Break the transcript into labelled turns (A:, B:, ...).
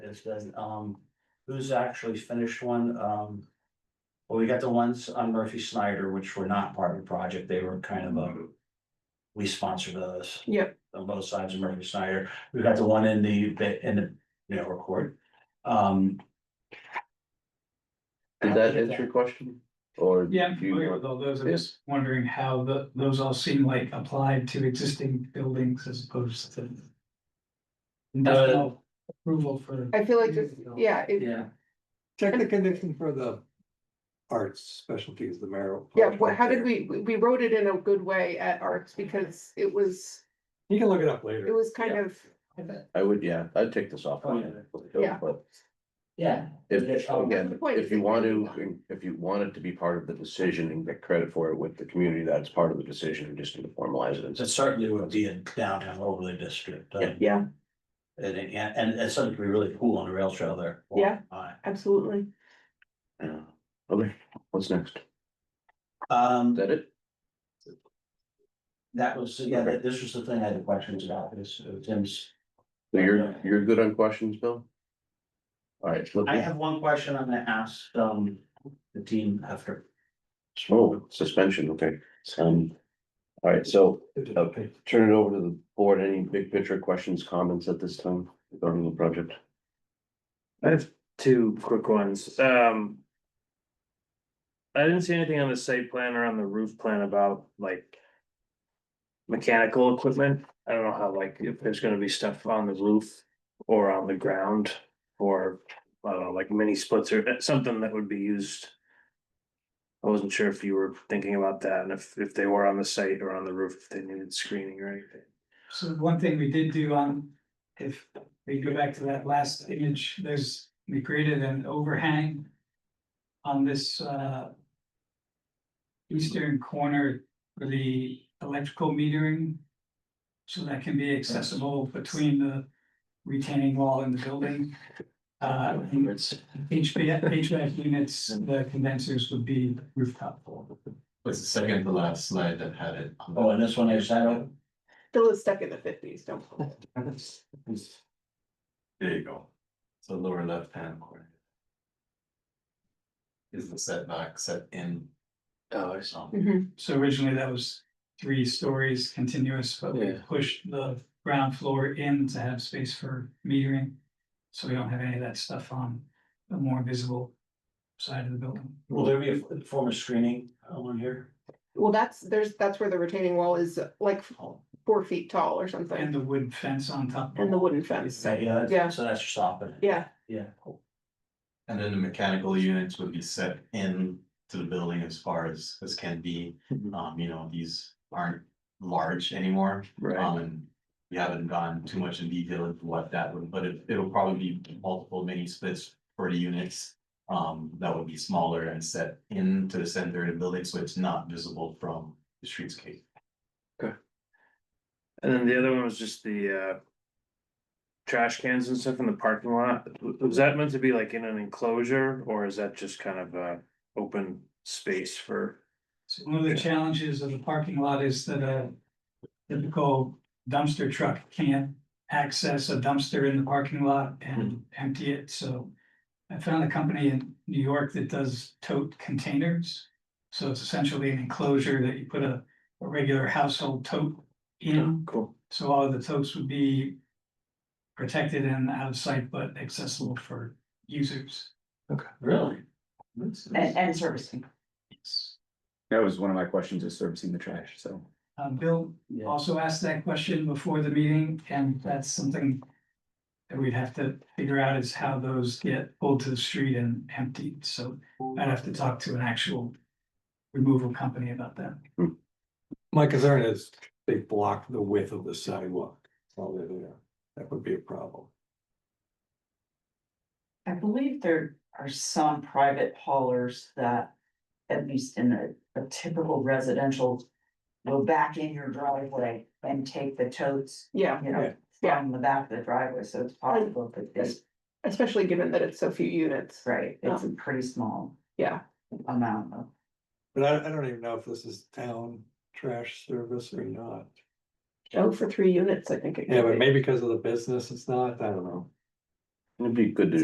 A: is good. Um, who's actually finished one? Um. Well, we got the ones on Murphy Snyder, which were not part of the project. They were kind of a. We sponsor those.
B: Yep.
A: On both sides of Murphy Snyder. We got the one in the, in the, you know, record. Um.
C: Did that answer your question? Or?
D: Yeah, I'm
C: do you
D: familiar
C: want-
D: with all those. I'm
C: Yeah.
D: just wondering how the, those all seem like applied to existing buildings as opposed to. Industrial approval for.
B: I feel like this, yeah, it,
A: Yeah,
E: Check the condition for the arts specialties, the marrow.
B: yeah, what, how did we, we wrote it in a good way at Arts because it was,
E: You can look it up
B: it
E: later.
B: was kind of.
C: I would, yeah, I'd take this off.
A: Oh, yeah.
B: Yeah.
C: But
A: yeah. Um,
C: if, again,
B: Point
C: if you
B: is
C: want to,
B: taken.
C: if you want it to be part of the decision and get credit for it with the community, that's part of the decision, you just need to formalize it. and
A: It certainly would be in downtown overlay district. uh,
C: Yeah.
B: Yeah,
A: And, and, and it's something to be really cool on the rail trail there.
B: Yeah.
A: Alright.
B: absolutely.
C: Yeah. Okay, what's next?
A: Um,
C: Is that it?
A: that was, yeah, that- this was the thing I had questions about, this, uh, Tim's.
C: So You're, you're good on questions, Bill? All right. look-
A: I have one question I'm gonna ask, um, the team after.
C: Oh, suspension, okay. Um, all right, so Okay, turn it over to the board. Any big picture questions, comments at this time regarding the project?
F: I have two quick ones, um. I didn't see anything on the site plan or on the roof plan about like. Mechanical equipment, I don't know how like if there's gonna be stuff on the roof or on the ground. Or, I don't know, like mini splits or uh, something that would be used. I wasn't sure if you were thinking about that and if if they were on the site or on the roof, if they needed screening or anything.
D: So one thing we did do on, if we go back to that last image, there's, we created an overhang. On this uh. Eastern corner for the electrical metering. So that can be accessible between the retaining wall and the building. Uh, and it's HVAC, HVAC units, the condensers would be rooftop.
G: was the second to last slide that had it. on the-
A: Oh, and this one I sat on,
B: Still is stuck in the fifties, don't.
G: There you go. So lower left hand corner. Is the setback set in? um,
F: Oh,
G: or something?
B: Mhm.
D: So originally that was three stories continuous, but we
F: Yeah.
D: pushed the ground floor in to have space for metering. So we don't have any of that stuff on the more visible side of the building.
A: will there be a form of screening on here?
B: Well, that's, there's, that's where the retaining wall is like four feet tall or
D: And
B: something,
D: the wood fence on top.
B: and the wooden fence,
A: So, yeah,
B: Yeah.
A: that's- so that's stopping. it.
B: yeah,
A: Yeah.
G: And then the mechanical units would be set in to the building as far as, as can be.
F: Mhm.
G: Um, you know, these aren't large anymore. Um, and we haven't gone too much in detail into what that would, but it, it'll probably be multiple mini splits for the units. Um, that would be smaller and set into the center of the building, so it's not visible from the streetscape.
F: And then the other one was just the uh. Trash cans and stuff in the parking lot, W- was that meant to be like in an enclosure, or is that just kind of a open space for?
D: So one of the challenges of the parking lot is that a typical dumpster truck can't access a dumpster in the parking lot and empty it, so. I found a company in New York that does tote containers. So it's essentially an enclosure that you put a, a regular household tote in,
F: Cool.
D: so all of the totes would be protected and out of sight, but accessible for users.
A: Really?
H: And, and servicing.
I: That was one of my questions is servicing the trash, so.
D: Uh, Bill
A: Yeah.
D: also asked that question before the meeting, and that's something that we'd have to figure out is how those get pulled to the street and emptied, so I'd have to talk to an actual removal company about that.
E: My concern is they block the width of the sidewalk while they're there. That would be a problem.
H: I believe there are some private haulers that, at least in a, a typical residential, go back in your driveway and take the totes,
B: yeah,
H: you know,
B: Yeah.
H: from the back of the driveway, so it's possible that this,
B: especially given that it's so few units.
H: right, it's a pretty small
B: Yeah,
H: amount of.
E: But I, I don't even know if this is town trash service or not.
B: oh, for three units, I think. it
E: Yeah,
B: could
E: but
B: be.
E: maybe because of the business, it's not, I don't know.
C: It'd be good to